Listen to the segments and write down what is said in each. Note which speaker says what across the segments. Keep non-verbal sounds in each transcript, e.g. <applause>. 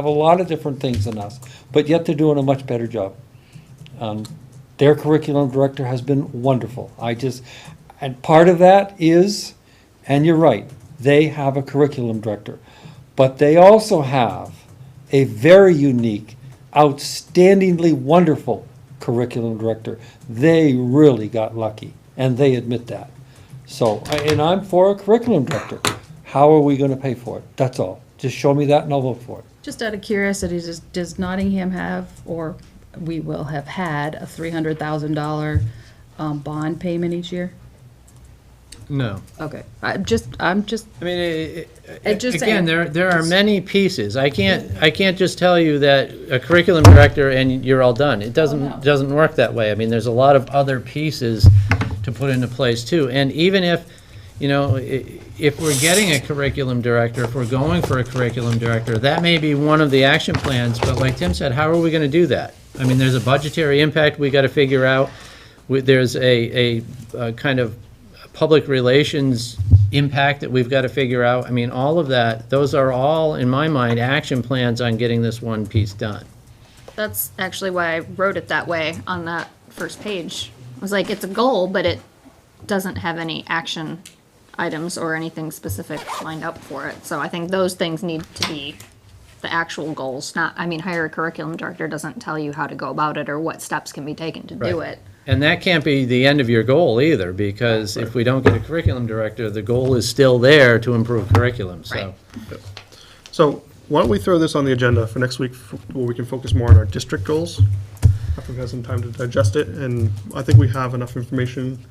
Speaker 1: have a lot of different things than us, but yet they're doing a much better job. Um, Their curriculum director has been wonderful. I just, and part of that is, and you're right, they have a curriculum director. But they also have a very unique, outstandingly wonderful curriculum director. They really got lucky, and they admit that. So, I- and I'm for a curriculum director. How are we gonna pay for it? That's all. Just show me that and I'll vote for it.
Speaker 2: Just out of curiosity, does, does Nottingham have, or we will have had, a three hundred thousand dollar, um, bond payment each year?
Speaker 3: No,
Speaker 2: Okay, I'm just, I'm just,
Speaker 3: I mean, it- it-
Speaker 2: It just-
Speaker 3: again, there, there are many pieces. I can't, I can't just tell you that a curriculum director and you're all done. It
Speaker 2: Oh, no.
Speaker 3: doesn't, doesn't work that way. I mean, there's a lot of other pieces to put into place too. And even if, you know, i- if we're getting a curriculum director, if we're going for a curriculum director, that may be one of the action plans, but like Tim said, how are we going to do that? I mean, there's a budgetary impact we got to figure out. We- There's a, a uh, kind of public relations impact that we've got to figure out. I mean, all of that, those are all, in my mind, action plans on getting this one piece done.
Speaker 4: That's actually why I wrote it that way on that first page. I was like, it's a goal, but it doesn't have any action items or anything specific lined up for it. So I think those things need to be the actual goals, not, I mean, hire a curriculum director doesn't tell you how to go about it or what steps can be taken to do
Speaker 3: Right.
Speaker 4: it.
Speaker 3: And that can't be the end of your goal either, because if we don't get a curriculum director, the goal is still there to improve curriculum, so.
Speaker 4: Right.
Speaker 5: So why don't we throw this on the agenda for next week, f- where we can focus more on our district goals? After we've had some time to digest it, and I think we have enough information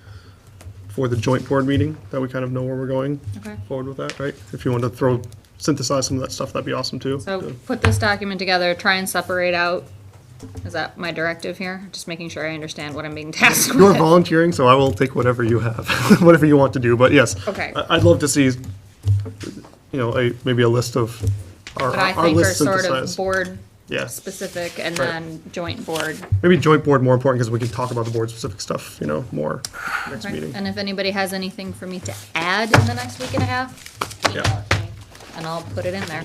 Speaker 5: for the joint board meeting, that we kind of know where we're going
Speaker 4: Okay.
Speaker 5: forward with that, right? If you want to throw, synthesize some of that stuff, that'd be awesome too.
Speaker 4: So put this document together, try and separate out, is that my directive here? Just making sure I understand what I'm being <laughs> tasked
Speaker 5: You're
Speaker 4: with.
Speaker 5: volunteering, so I will take whatever you have, <laughs> whatever you want to do, but yes.
Speaker 4: Okay.
Speaker 5: I- I'd love to see, you know, a, maybe a list of our,
Speaker 4: But I
Speaker 5: our
Speaker 4: think are
Speaker 5: list
Speaker 4: sort of
Speaker 5: synthesized.
Speaker 4: board
Speaker 5: Yes,
Speaker 4: specific and
Speaker 5: Right.
Speaker 4: then joint board.
Speaker 5: maybe joint board more important, because we can talk about the board specific stuff, you know, more next meeting.
Speaker 4: And if anybody has anything for me to add in the next week and a half, email
Speaker 5: Yeah.
Speaker 4: it to me, and I'll put it in there.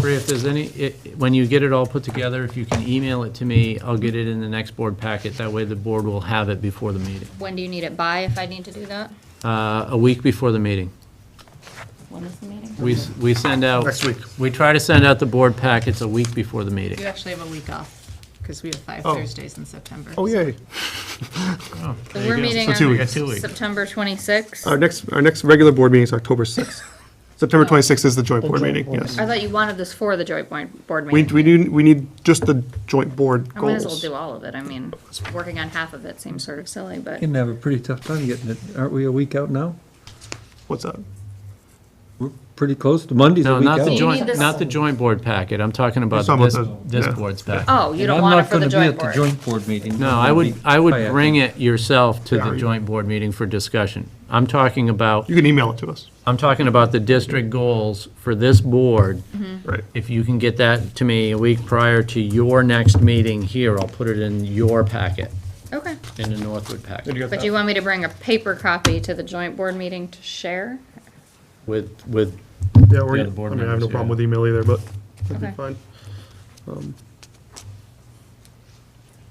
Speaker 3: Bree, if there's any, i- when you get it all put together, if you can email it to me, I'll get it in the next board packet. That way the board will have it before the meeting,
Speaker 4: When do you need it by, if I need to do that?
Speaker 3: uh, a week before the meeting.
Speaker 4: When is the meeting?
Speaker 3: We, s- we send out.
Speaker 5: Next week.
Speaker 3: We try to send out the board packets a week before the meeting.
Speaker 6: You actually have a week off, because we have five
Speaker 5: Oh.
Speaker 6: Thursdays in September.
Speaker 5: Oh, yay.
Speaker 4: So we're meeting
Speaker 5: So two
Speaker 4: on
Speaker 5: weeks.
Speaker 4: September twenty-sixth.
Speaker 5: Our next, our next regular board meeting is
Speaker 4: <laughs>
Speaker 5: October 6th. September 26th is the Oh, joint board meeting, yes.
Speaker 4: I thought you wanted this for the joint board, board
Speaker 5: We,
Speaker 4: meeting.
Speaker 5: we need, we need just the joint board
Speaker 4: I might as well
Speaker 5: goals.
Speaker 4: do all of it, I mean, working on half of it seems sort of silly, but
Speaker 7: Going to have a pretty tough time getting it. Aren't we a week out now?
Speaker 5: What's that?
Speaker 7: We're pretty close to Monday's a
Speaker 3: No,
Speaker 7: week
Speaker 3: not the
Speaker 7: out.
Speaker 4: joint- need
Speaker 3: joint,
Speaker 4: this-
Speaker 3: not the joint board packet, I'm talking about
Speaker 5: talking
Speaker 3: this,
Speaker 5: about the-
Speaker 3: this
Speaker 5: yeah.
Speaker 3: board's packet.
Speaker 4: Oh, you
Speaker 7: And
Speaker 4: don't
Speaker 7: I'm
Speaker 4: want it
Speaker 7: not
Speaker 4: for the
Speaker 7: going to be
Speaker 4: joint
Speaker 7: at the
Speaker 4: board.
Speaker 7: joint board meeting.
Speaker 3: No, I would, I would bring it yourself to the joint board meeting for discussion. I'm talking about,
Speaker 5: You can email it to us,
Speaker 3: I'm talking about the district goals for this board.
Speaker 4: Mm-hmm.
Speaker 5: right?
Speaker 3: If you can get that to me a week prior to your next meeting here, I'll put it in your packet,
Speaker 4: Okay,
Speaker 3: in the Northwood packet,
Speaker 4: but do you want me to bring a paper copy to the joint board meeting to share?
Speaker 3: with, with,
Speaker 5: Yeah, we're,
Speaker 3: Yeah,
Speaker 5: I
Speaker 3: the board
Speaker 5: mean, I have no
Speaker 3: members,
Speaker 5: problem
Speaker 3: yeah.
Speaker 5: with email either, but that'd be
Speaker 4: Okay.
Speaker 5: fine.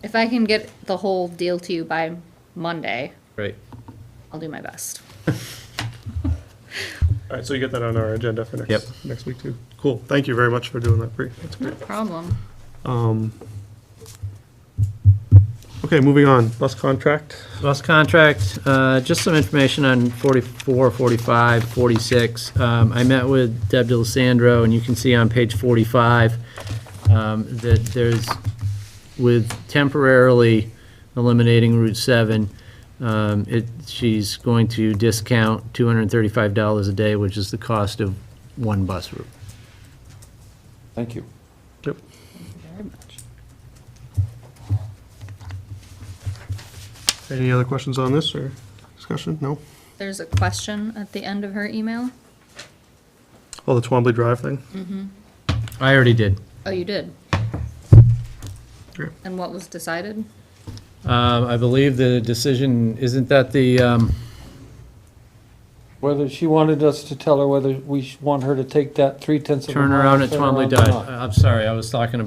Speaker 4: If I can get the whole deal to you by Monday,
Speaker 3: right.
Speaker 4: I'll do my best.
Speaker 5: All right, so you get that on our agenda for
Speaker 3: Yep.
Speaker 5: next, next week too. Cool, thank you very much for doing that, Bree. That's
Speaker 4: No
Speaker 5: great.
Speaker 4: problem.
Speaker 5: Um, Okay, moving on, bus contract.
Speaker 3: Bus contract, uh, just some information on 44, 45, 46. Um, I met with Deb DeLisandro, and you can see on page 45 um, that there's, with temporarily eliminating Route 7, um, it, she's going to discount $235 a day, which is the cost of one bus route.
Speaker 1: Thank you.
Speaker 5: Yep. Any other questions on this or discussion? No?
Speaker 4: There's a question at the end of her email.
Speaker 5: Oh, the Twombly Drive thing?
Speaker 3: I already did.
Speaker 4: Oh, you did?
Speaker 5: Sure.
Speaker 4: And what was decided?
Speaker 3: Um, I believe the decision, isn't that the, um,
Speaker 1: Whether she wanted us to tell her whether we sh- want her to take that three tenths of a mile.
Speaker 3: Turnaround at Twombly
Speaker 1: turnaround or
Speaker 3: Dodge.
Speaker 1: not.
Speaker 3: I- I'm sorry, I was talking about